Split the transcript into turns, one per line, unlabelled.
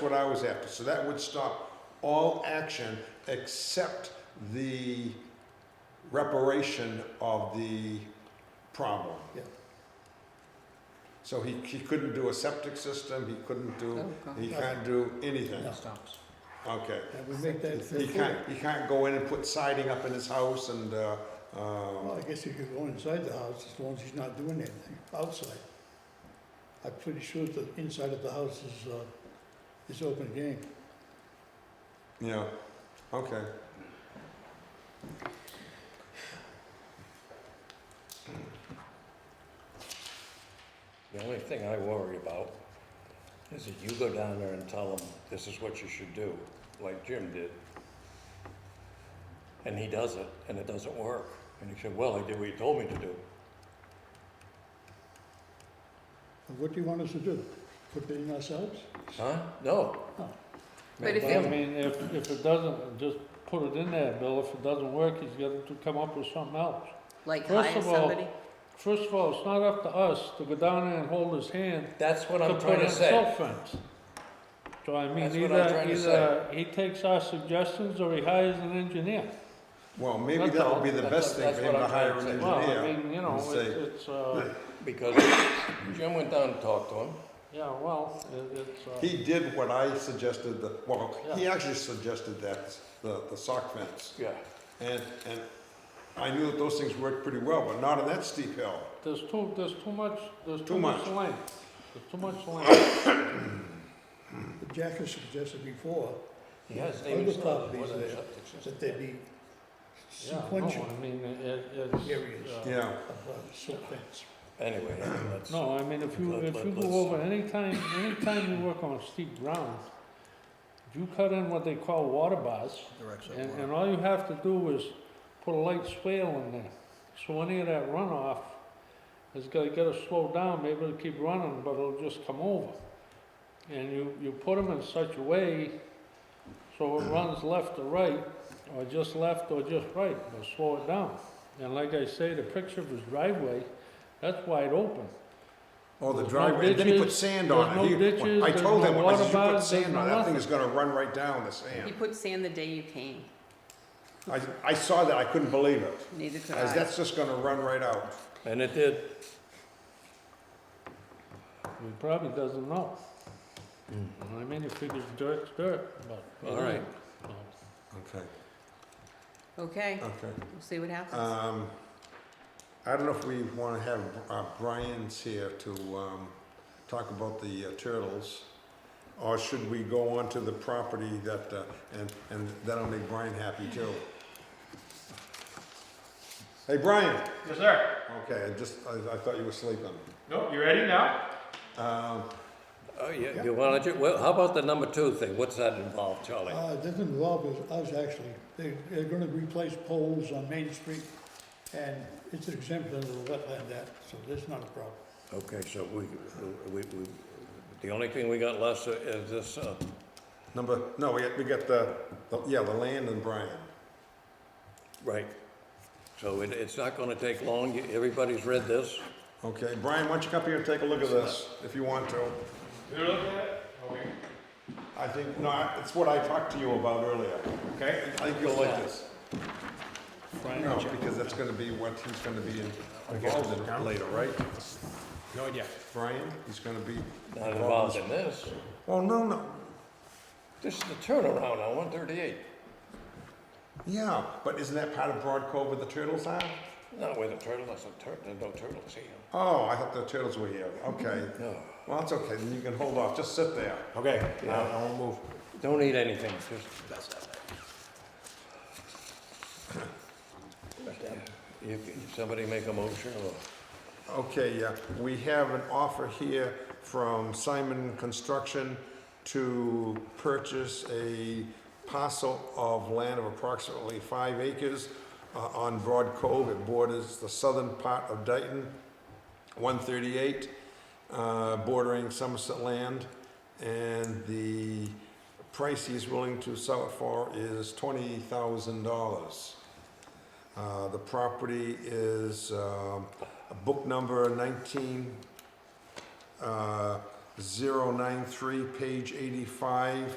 That's what I was after, so that would stop all action except the reparation of the problem.
Yeah.
So he, he couldn't do a septic system, he couldn't do,
Oh, God.
he can't do anything,
No.
Stops.
okay.
Yeah, we make that
He
fair
can't,
point.
he can't go in and put siding up in his house and, uh, um,
Well, I guess he could go inside the house as long as he's not doing anything outside. I'm pretty sure the inside of the house is, uh, is open game.
you know, okay.
The only thing I worry about is that you go down there and tell them, this is what you should do, like Jim did. And he does it, and it doesn't work. And he said, well, I did what you told me to do.
And what do you want us to do? Put it in ourselves?
Huh? No.
But if
Well, I
it,
mean, if, if it doesn't, just put it in there, Bill, if it doesn't work, he's got to come up with something else.
like
First
hire
of all-
somebody,
First of all, it's not up to us to go down there and hold his hand
That's what
to
I'm
put
trying
in
to say.
silt fence. So I mean,
That's what I'm
either,
trying to
either he takes our suggestions or he hires an engineer.
Well, maybe
That's
that
all.
would be the
That's
best thing
what-
for him
that's what
to
I'm
hire
trying to
an
say.
Well, I
engineer
mean, you know,
and
it's,
say,
it's, uh,
Because Jim went down and talked to him.
yeah, well, it- it's, uh,
He did what I suggested, the, well, he
Yeah.
actually suggested that, the, the sock fence.
Yeah.
And, and I knew that those things worked pretty well, but not on that steep hill.
there's too, there's too much, there's
Too
too much
much.
land. There's too much land.
But Jack has suggested before
He has
Other
David's stuff.
properties there that there be
Yeah, no,
sequential
I mean, it, it's.
Areas.
uh,
Yeah,
of uh, silt fence.
Anyway, that's,
No, I mean, if you,
Let-
if
let-
you
let's-
go over, anytime, anytime you work on steep ground, you cut in what they call water bars, and, and all you have to do is put a light swale in there. So any of that runoff is gonna get it slowed down, maybe it'll keep running, but it'll just come over. And you, you put them in such a way so it runs left to right, or just left or just right, but slow it down. And like I say, the picture of his driveway, that's wide open.
oh, the
There's no
driveway, and then he put
ditches,
sand
there's
on
no
it. He-
ditches,
I
there's
told
no
him, I said,
water
you put
bars,
sand on,
there's no
that thing
nothing."
is gonna run right down the
you
sand.
put sand the day you came,
I, I saw that, I couldn't believe it.
neither could
I said,
I.
that's just gonna run right out.
and it did.
He probably doesn't know. I mean, he figures dirt's dirt, but. it
Hmm. All right.
isn't. So,
Okay,
Okay,
Oh.
okay.
we'll see what happens.
Um, I don't know if we wanna have, uh, Brian's here to, um, talk about the uh, turtles. Or should we go on to the property that, uh, and, and that'll make Brian happy too? Hey, Brian,
Yes, sir.
okay, I just, I, I thought you were sleeping.
Nope, you ready now?
Um,
Oh, yeah, you wanna, ju- well, how about the number two thing? What's that involve, Charlie?
Uh, it doesn't involve us- us actually. They, they're gonna replace poles on Main Street and it's exempt under the wetland act, so that's not a problem.
Okay, so we, we, we, the only thing we got left is this, uh,
number, no, we got, we got the, the- yeah, the land and Brian.
right. So it, it's not gonna take long, You- everybody's read this.
Okay, Brian, why don't you come up here and take a look at this, if you want to?
You're looking at it? Okay.
I think, no, I- it's what I talked to you about earlier, okay? I think you'll like this. No, because that's gonna be what he's gonna be in- involved in later, right?
No idea.
Brian, he's gonna be
Not
involved
involved
in this.
in this.
Oh, no, no,
This is the turnaround on one thirty-eight,
yeah, but isn't that part of Broad Cove where the turtles are?
not where the turtle, that's a tur, there's no turtles here.
Oh, I thought the turtles were here, okay.
No,
Well, that's okay, then you can hold off, just sit there.
okay,
I I won't move.
don't eat anything, just. You, somebody make a motion or?
Okay, yeah, we have an offer here from Simon Construction to purchase a parcel of land of approximately five acres uh, on Broad Cove. It borders the southern part of Dayton, 138, uh, bordering Somerset land. And the price he's willing to sell it for is $20,000. Uh, The property is um, book number 19, uh, 093, page 85,